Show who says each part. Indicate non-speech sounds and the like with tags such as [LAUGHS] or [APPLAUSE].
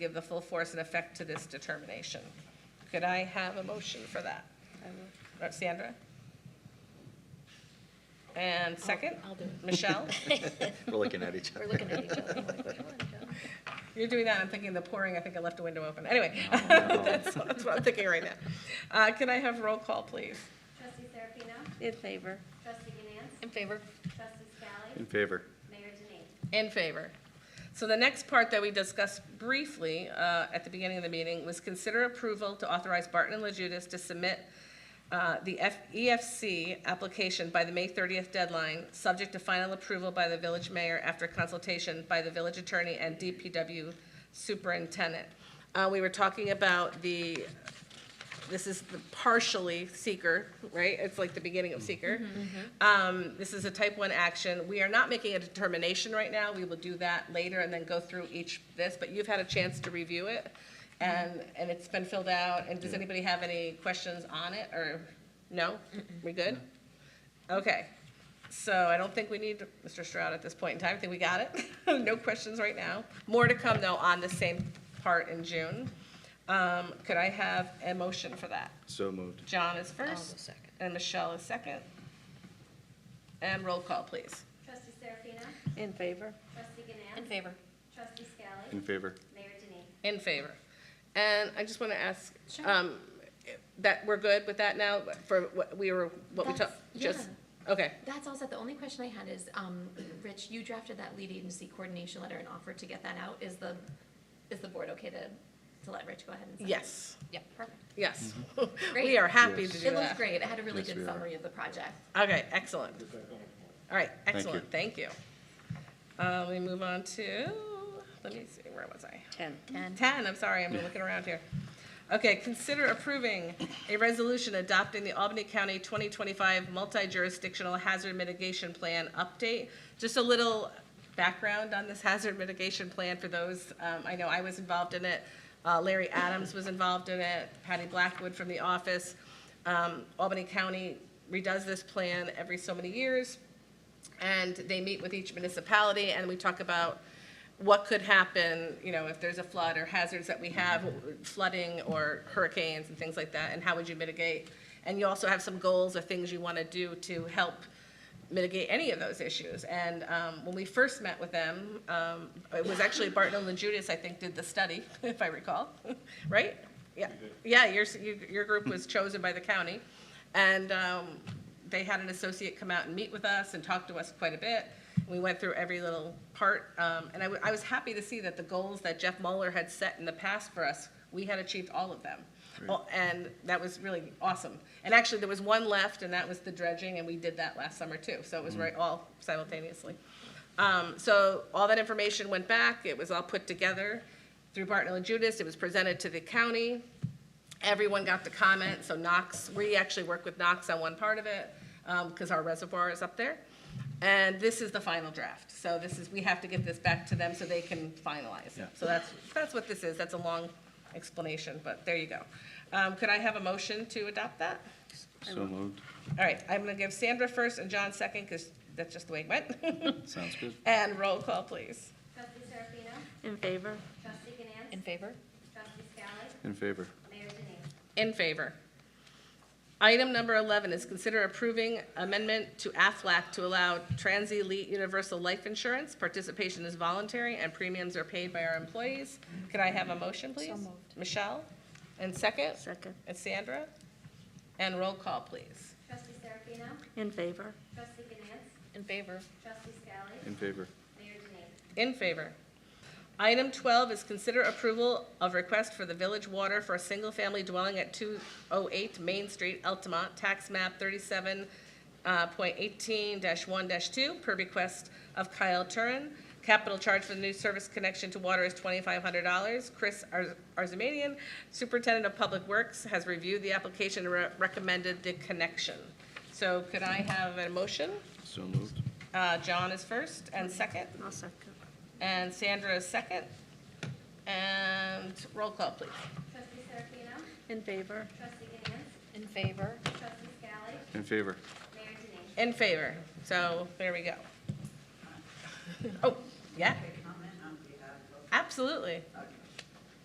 Speaker 1: give the full force and effect to this determination. Could I have a motion for that? Uh, Sandra? And second?
Speaker 2: I'll do it. [LAUGHS]
Speaker 1: Michelle?
Speaker 3: We're looking at each
Speaker 2: We're
Speaker 3: other.
Speaker 2: looking at each other. like, [LAUGHS] "Come on, John."
Speaker 1: You're doing that, I'm thinking the pouring, I think I left a window open. Anyway,
Speaker 3: no.
Speaker 1: [LAUGHS] that's what that's what I'm thinking right now. Uh, Can I have roll call, please?
Speaker 4: Trustee Serafino?
Speaker 5: In favor.
Speaker 4: Trustee Ganance?
Speaker 2: In favor?
Speaker 4: Trustee
Speaker 3: In
Speaker 4: Scally?
Speaker 3: favor.
Speaker 4: Mayor Denine.
Speaker 1: In favor. So the next part that we discussed briefly uh, at the beginning of the meeting was consider approval to authorize Barton and Lejudas to submit uh, the F- EFC application by the May 30th deadline, subject to final approval by the village mayor after consultation by the village attorney and DPW superintendent. Uh, We were talking about the this is the partially seeker, right? It's like the beginning of seeker. Um, This is a type one action. We are not making a determination right now. We will do that later and then go through each this, but you've had a chance to review it. And, and it's been filled out. And does anybody have any questions on it or, no? We good? Okay. So I don't think we need Mr. Stroud at this point in time. I think we got it. [LAUGHS] No questions right now. More to come though on the same part in June. Um, Could I have a motion for that?
Speaker 3: So moved.
Speaker 1: John is
Speaker 2: I'll go
Speaker 1: 1st
Speaker 2: second.
Speaker 1: and Michelle is second. And roll call, please.
Speaker 4: Trustee Serafino?
Speaker 5: In favor.
Speaker 4: Trustee Ganance?
Speaker 2: In favor?
Speaker 4: Trustee Scally?
Speaker 3: In favor.
Speaker 4: Mayor Denine.
Speaker 1: In favor. And I just want to ask,
Speaker 2: Sure.
Speaker 1: um, that, we're good with that now for what we were, what we talked,
Speaker 2: That's-
Speaker 1: just, okay.
Speaker 2: That's all set. The only question I had is, um, Rich, you drafted that lead agency coordination letter and offered to get that out. Is the, is the board okay to, to let Rich go ahead and sign?
Speaker 1: Yes,
Speaker 2: Yeah, perfect.
Speaker 1: yes. We [LAUGHS]
Speaker 2: Great.
Speaker 1: are happy to
Speaker 3: Mm-hmm. Yes.
Speaker 1: do
Speaker 2: It looks
Speaker 1: that.
Speaker 2: great. It had a really
Speaker 3: Yes, we
Speaker 2: good
Speaker 3: are.
Speaker 2: summary of the project.
Speaker 1: Okay, excellent. All right,
Speaker 3: you.
Speaker 1: excellent, thank you. Uh, we move on to, let me see, where was I?
Speaker 5: Ten.
Speaker 2: And
Speaker 1: Ten, I'm sorry, I'm looking around here. Okay, consider approving a resolution adopting the Albany County 2025 Multi-Jurisdictional Hazard Mitigation Plan Update. Just a little background on this hazard mitigation plan for those, um, I know I was involved in it, uh, Larry Adams was involved in it, Patty Blackwood from the office. Um, Albany County redoes this plan every so many years, and they meet with each municipality, and we talk about what could happen, you know, if there's a flood or hazards that we have, flooding or hurricanes and things like that, and how would you mitigate? And you also have some goals or things you want to do to help mitigate any of those issues. And um, when we first met with them, um, it was actually Barton and Judas, I think, did the study, [LAUGHS] if I recall, right? Yeah, yeah, your, you- your group was chosen by the county. And um, they had an associate come out and meet with us and talk to us quite a bit. We went through every little part, um, and I, wa- I was happy to see that the goals that Jeff Mueller had set in the past for us, we had achieved all of them. Well, And that was really awesome. And actually, there was one left, and that was the dredging, and we did that last summer too, so it was right, all simultaneously. Um, so all that information went back, it was all put together through Barton and Judas, it was presented to the county, everyone got to comment, so Knox, we actually work with Knox on one part of it, because our reservoir is up there. And this is the final draft, so this is, we have to get this back to them so they can finalize it. So that's, that's what this is, that's a long explanation, but there you go. Um, Could I have a motion to adopt that?
Speaker 3: So moved.
Speaker 1: All right, I'm going to give Sandra first and John second, because that's just the way it
Speaker 3: [LAUGHS]
Speaker 1: went. [LAUGHS]
Speaker 3: Sounds good.
Speaker 1: And roll call, please.
Speaker 4: Trustee Serafino?
Speaker 5: In favor.
Speaker 4: Trustee Ganance?
Speaker 2: in favor?
Speaker 4: Trustee Scally?
Speaker 3: In favor.
Speaker 4: Mayor Denine.
Speaker 1: In favor. Item number 11 is consider approving amendment to Aflac to allow Trans-Elite Universal Life Insurance. Participation is voluntary and premiums are paid by our employees. Could I have a motion, please?
Speaker 2: moved.
Speaker 1: Michelle? And second?
Speaker 5: Second.
Speaker 1: And Sandra? And roll call, please.
Speaker 4: Trustee Serafino?
Speaker 5: In favor.
Speaker 4: Trustee Ganance?
Speaker 2: In favor.
Speaker 4: Trustee Scally?
Speaker 3: In favor.
Speaker 4: Mayor Denine.
Speaker 1: In favor. Item 12 is consider approval of request for the village water for a single-family dwelling at 208 Main Street, Altamont, tax map uh, 37.18-1-2, per request of Kyle Turin. Capital charge for the new service connection to water is $2,500. Chris Ar- Arzamanian, Superintendent of Public Works, has reviewed the application and re- recommended the connection. So could I have a motion?
Speaker 3: So moved.
Speaker 1: Uh, John is first and second.
Speaker 5: I'll second.
Speaker 1: And Sandra is second. And roll call, please.
Speaker 4: Trustee Serafino?
Speaker 5: In favor.
Speaker 4: Trustee Ganance?
Speaker 2: In favor?
Speaker 4: Trustee Scally?
Speaker 3: In favor.
Speaker 4: Mayor Denine.
Speaker 1: In favor. So there we go. [LAUGHS] Oh, yeah,
Speaker 6: Comment on behalf of,
Speaker 1: absolutely.
Speaker 6: okay.